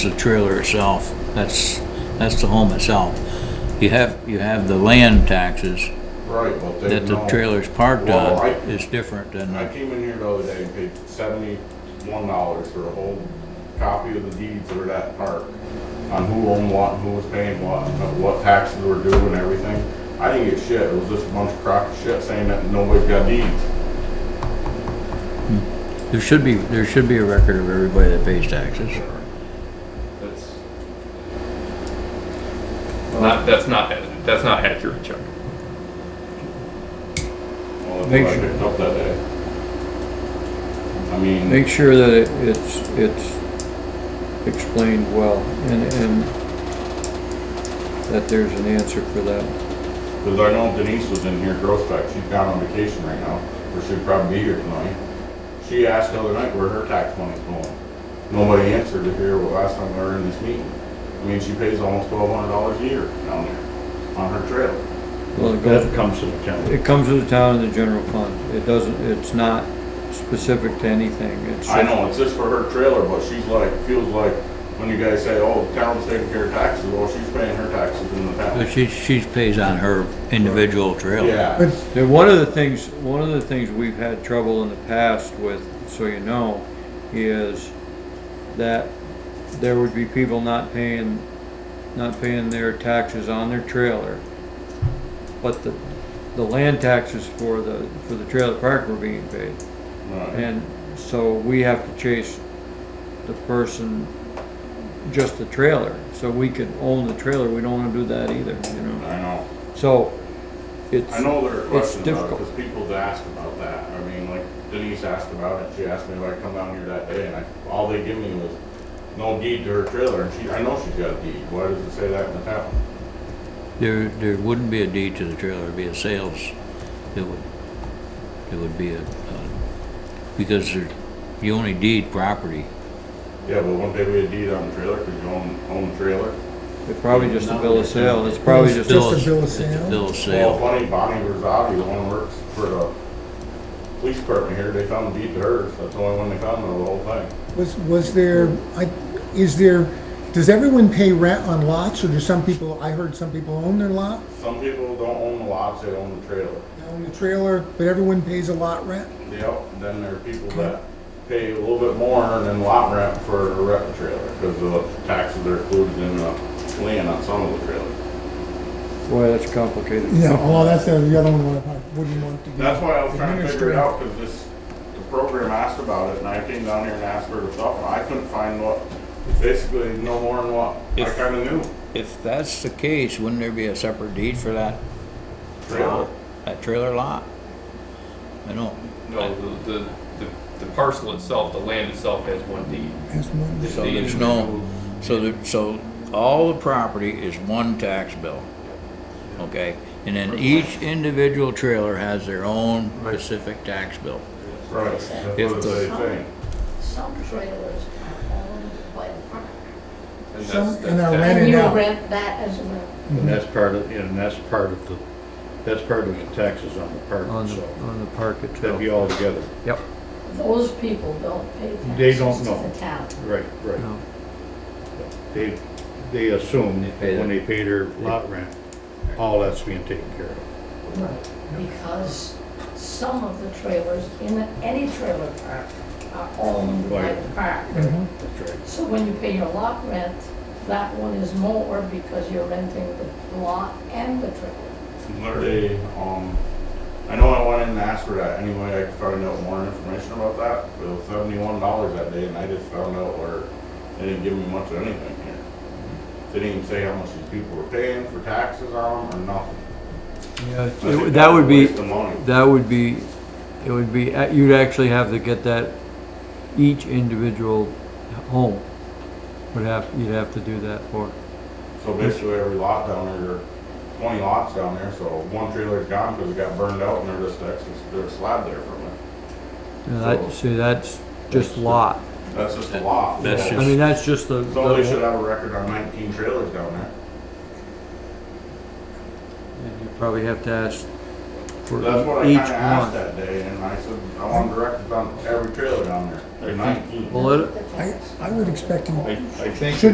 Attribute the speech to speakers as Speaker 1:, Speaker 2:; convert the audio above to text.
Speaker 1: the trailer itself, that's, that's the home itself. You have, you have the land taxes
Speaker 2: Right, well, they
Speaker 1: that the
Speaker 2: know-
Speaker 1: trailer's parked
Speaker 2: Well,
Speaker 1: on
Speaker 2: I-
Speaker 1: is different than,
Speaker 2: I
Speaker 1: the-
Speaker 2: came in here the other day and paid seventy-one dollars for a whole copy of the deeds for that park. On who owned what, and who was paying what, and what taxes were due and everything. I didn't get shit, it was just a bunch of crock of shit saying that nobody's got deeds.
Speaker 1: there should be, there should be a record of everybody that pays taxes.
Speaker 3: That's not, that's not, that's not accurate, Chuck.
Speaker 2: Well,
Speaker 1: Make
Speaker 2: that's what I
Speaker 1: sure-
Speaker 2: picked up that day. I mean,
Speaker 4: Make sure that it- it's, it's explained well and, and that there's an answer for that.
Speaker 2: cause I know Denise was in here, Girl Spec, she's gone on vacation right now, or she'd probably be here tonight. She asked the other night where her tax money's going. Nobody answered it here, well, last time we were in this meeting. I mean, she pays almost twelve hundred dollars a year down there, on her trailer.
Speaker 4: Well, it
Speaker 5: That
Speaker 4: goes,
Speaker 5: comes to the county.
Speaker 4: it comes to the town and the general fund. It doesn't, it's not specific to anything. It's
Speaker 2: I know, it's just for her trailer, but she's like, feels like, when you guys say, oh, the town's taking care of taxes, well, she's paying her taxes in the
Speaker 1: But
Speaker 2: town.
Speaker 1: she, she pays on her individual trailer.
Speaker 2: Yeah.
Speaker 4: And one of the things, one of the things we've had trouble in the past with, so you know, is that there would be people not paying, not paying their taxes on their trailer. But the, the land taxes for the, for the trailer park were being paid.
Speaker 2: Right.
Speaker 4: And so we have to chase the person, just the trailer, so we can own the trailer. We don't wanna do that either, you know?
Speaker 2: I know.
Speaker 4: So it's.
Speaker 2: I know there are
Speaker 4: It's
Speaker 2: questions about it,
Speaker 4: difficult.
Speaker 2: because people ask about that. I mean, like Denise asked about it, she asked me if I come down here that day, and I, all they give me was no deed to her trailer, and she, I know she's got a deed, why does it say that in the town?
Speaker 1: There, there wouldn't be a deed to the trailer, it'd be a sales, it would, it would be a, uh, because there- you only deed property.
Speaker 2: Yeah, but wouldn't there be a deed on the trailer, because you own, own the trailer?
Speaker 4: It's probably just a bill of sale, it's probably just,
Speaker 1: Bill
Speaker 4: a-
Speaker 6: a
Speaker 1: of-
Speaker 6: bill of
Speaker 1: it's a
Speaker 6: sale?
Speaker 1: Bill of sale.
Speaker 2: Well, funny, Bonnie Rosavi, the one who works for the police department here, they found a deed to hers, that's the only one they found of the whole thing.
Speaker 6: Was, was there, I, is there, does everyone pay rent on lots, or do some people, I heard some people own their lot,
Speaker 2: Some people don't own the lots, they own the trailer.
Speaker 6: they own the trailer, but everyone pays a lot rent?
Speaker 2: Yep, and then there are people that pay a little bit more than lot rent for a rental trailer, because the taxes are included in the land on some of the trailers.
Speaker 4: boy, that's complicated.
Speaker 6: Yeah, well, Oh, that's the the other one, I wouldn't want to be.
Speaker 2: That's why I was trying to figure it
Speaker 6: administrative.
Speaker 2: out, because this, the program asked about it, and I came down here and asked for the stuff, and I couldn't find what, basically no more than what I
Speaker 1: If-
Speaker 2: kinda knew.
Speaker 1: If that's the case, wouldn't there be a separate deed for that,
Speaker 2: Trailer,
Speaker 1: that trailer lot? I don't,
Speaker 3: No, the, the, the- the parcel itself, the land itself has one deed.
Speaker 6: That's one.
Speaker 1: so there's no, so there, so all the property is one tax bill. Okay, and then each individual trailer has their own specific tax bill.
Speaker 2: right, that's
Speaker 1: If
Speaker 2: what
Speaker 1: the-
Speaker 2: they think.
Speaker 7: Some trailers are owned by the park.
Speaker 3: And
Speaker 6: Some,
Speaker 3: that's,
Speaker 6: and are
Speaker 3: that's,
Speaker 7: And
Speaker 6: rented
Speaker 7: you
Speaker 6: out.
Speaker 7: rent that as well.
Speaker 5: And that's part of, and that's part of the, that's part of the taxes on the
Speaker 4: On
Speaker 5: park
Speaker 4: the,
Speaker 5: itself.
Speaker 4: on the park
Speaker 5: That'd
Speaker 4: itself.
Speaker 5: be all together.
Speaker 7: Those people don't pay taxes.
Speaker 5: They don't know.
Speaker 7: To the town.
Speaker 5: Right, right.
Speaker 4: No.
Speaker 5: They, they assume that
Speaker 1: pay
Speaker 5: when they pay their lot rent, all that's being taken care of.
Speaker 7: Because some of the trailers in any trailer park are owned by the park.
Speaker 5: That's right.
Speaker 7: So when you pay your lot rent, that one is more because you're renting the lot and the trailer.
Speaker 2: Literally, um, I know I went in and asked for that, any way I could find out more information about that, but it was seventy-one dollars that day, and I just found out where, they didn't give me much of anything here. They didn't even say how much these people were paying for taxes on them, or nothing.
Speaker 4: Yeah,
Speaker 2: I think
Speaker 4: it- That would be,
Speaker 2: That's a waste of money.
Speaker 4: that would be, it would be, uh, you'd actually have to get that, each individual home would have, you'd have to do that for.
Speaker 2: So basically, every lot down there, there are twenty lots down there, so one trailer's gone, cause it got burned out, and they're just, they're slab there from it.
Speaker 4: And that, see, that's just lot.
Speaker 2: That's just a lot.
Speaker 1: That's
Speaker 4: I mean, that's just the,
Speaker 2: So they should
Speaker 4: the-
Speaker 2: have a record on nineteen trailers down there.
Speaker 4: and you probably have to ask for
Speaker 2: That's what I
Speaker 4: each
Speaker 2: kinda asked
Speaker 4: one.
Speaker 2: that day, and I said, I want directions on every trailer down there,
Speaker 5: I think-
Speaker 2: nineteen.
Speaker 4: Well, it,
Speaker 7: The
Speaker 6: I,
Speaker 7: tax.
Speaker 6: I would expect you
Speaker 5: I, I think.